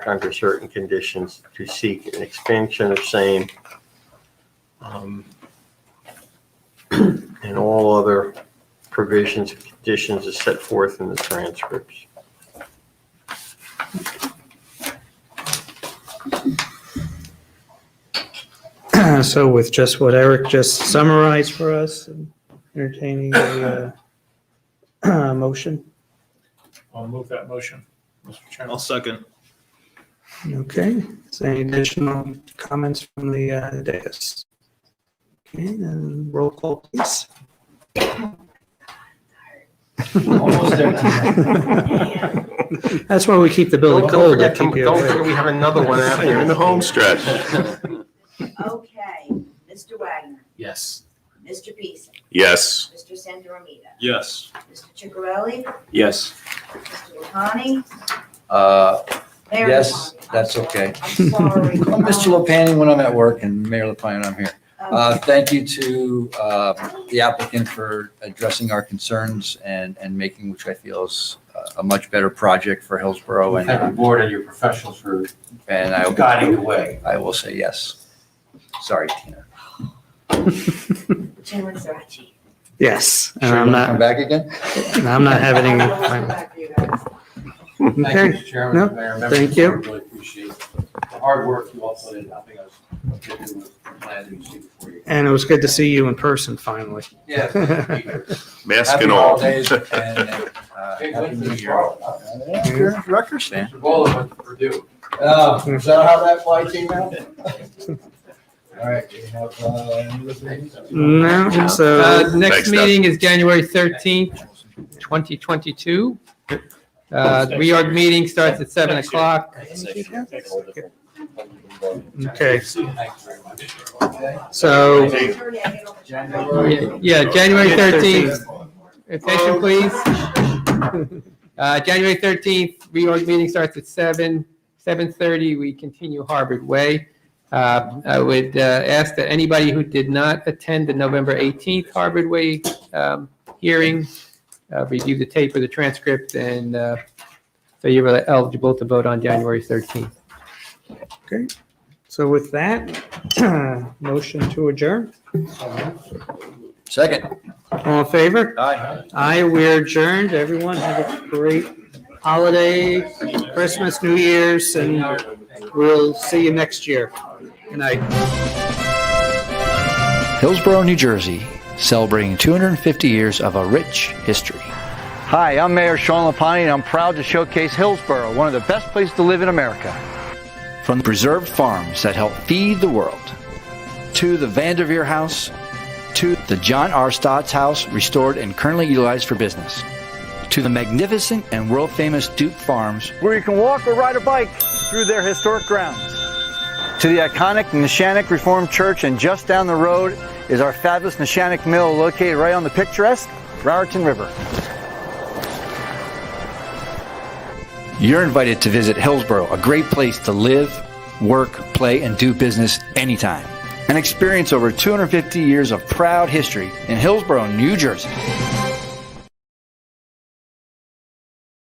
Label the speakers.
Speaker 1: under certain conditions to seek an expansion of same. Um, And all other provisions and conditions as set forth in the transcripts.
Speaker 2: So with just what Eric just summarized for us, entertaining a uh, motion,
Speaker 3: I'll move that motion, Mr. Chairman.
Speaker 4: I'll second.
Speaker 2: okay? Is there any additional comments from the uh, dais? Okay, then roll call, please.
Speaker 4: Almost
Speaker 2: That's why we keep the building
Speaker 1: Don't
Speaker 2: cold. to
Speaker 1: forget,
Speaker 2: keep you
Speaker 1: don't forget
Speaker 2: awake.
Speaker 1: we have another one out
Speaker 5: You're
Speaker 1: here.
Speaker 5: in the home stretch.
Speaker 6: Okay, Mr. Wagner,
Speaker 3: Yes.
Speaker 6: Mr. Beeson,
Speaker 5: Yes.
Speaker 6: Mr. Sandoramita,
Speaker 4: Yes.
Speaker 6: Mr. Chicarelli,
Speaker 4: Yes.
Speaker 6: Mr. Lapani,
Speaker 7: Uh,
Speaker 6: Mayor
Speaker 7: Yes,
Speaker 6: Lapani. I'm
Speaker 7: that's
Speaker 6: sorry.
Speaker 7: okay.
Speaker 6: I'm sorry.
Speaker 7: I'm Mr. Lepani when I'm at work and Mayor Lepani when I'm here.
Speaker 6: Um,
Speaker 7: Uh, Thank you to uh, the applicant for addressing our concerns and, and making, which I feel is uh, a much better project for Hillsborough.
Speaker 8: Thank
Speaker 7: And,
Speaker 8: the board and your professionals for
Speaker 7: and I,
Speaker 8: guiding the way.
Speaker 7: I will say yes. Sorry, Tina.
Speaker 6: Chairman Sarachi.
Speaker 2: Yes, and
Speaker 7: Sure you
Speaker 2: I'm
Speaker 7: wanna Come
Speaker 2: not,
Speaker 7: back again?
Speaker 2: and I'm not having
Speaker 6: I
Speaker 2: any.
Speaker 6: will come back for you guys.
Speaker 8: Thank you,
Speaker 2: Okay,
Speaker 8: Mr. Chairman,
Speaker 2: No,
Speaker 8: and Mayor, members. of
Speaker 2: thank
Speaker 8: the
Speaker 2: you.
Speaker 8: board. Really appreciate the hard work you all put in helping us get through with the plan that you see before you.
Speaker 2: and it was good to see you in person finally.
Speaker 8: Yeah. thank you.
Speaker 5: Mask
Speaker 7: Happy
Speaker 5: and all.
Speaker 7: holidays and, uh,
Speaker 8: Big
Speaker 7: Happy
Speaker 8: win for
Speaker 7: New
Speaker 8: the
Speaker 7: Year.
Speaker 8: Charlotte.
Speaker 7: Rutgers fan.
Speaker 8: Mr. Bowler went to Purdue.
Speaker 7: Oh, is that how that fly came out? All right, we have, uh, any other things?
Speaker 2: No,
Speaker 9: Uh,
Speaker 2: so,
Speaker 9: Next
Speaker 5: Thanks, Doug.
Speaker 9: meeting is January 13th, 2022. Uh, The Reorg meeting starts at 7 o'clock.
Speaker 2: okay,
Speaker 8: Thank you very much.
Speaker 2: so,
Speaker 6: Attorney, I get all the-
Speaker 9: Yeah, yeah, January 13th. Attention, please. Uh, January 13th, reorg meeting starts at 7, 7:30, we continue Harvard Way. Uh, I would uh, ask that anybody who did not attend the November 18th Harvard Way um, hearing, uh, review the tape or the transcript, and uh, so you're eligible to vote on January 13th.
Speaker 2: so with that, motion to adjourn.
Speaker 7: Second.
Speaker 2: All in favor?
Speaker 7: Aye.
Speaker 2: I we're adjourned. Everyone have a great holiday, Christmas, New Year's, and we'll see you next year. Good night.
Speaker 10: Hillsborough, New Jersey, celebrating 250 years of a rich history.
Speaker 7: Hi, I'm Mayor Sean Lapani, and I'm proud to showcase Hillsborough, one of the best places to live in America.
Speaker 10: From the preserved farms that help feed the world, to the Vanderveer House, to the John R. Stott's house, restored and currently utilized for business, to the magnificent and world famous Duke Farms,
Speaker 7: where you can walk or ride a bike through their historic grounds. To the iconic Neshanic Reformed Church, and just down the road is our fabulous Neshanic Mill located right on the picturesque Raritan River.
Speaker 10: you're invited to visit Hillsborough, a great place to live, work, play, and do business anytime. And experience over 250 years of proud history in Hillsborough, New Jersey.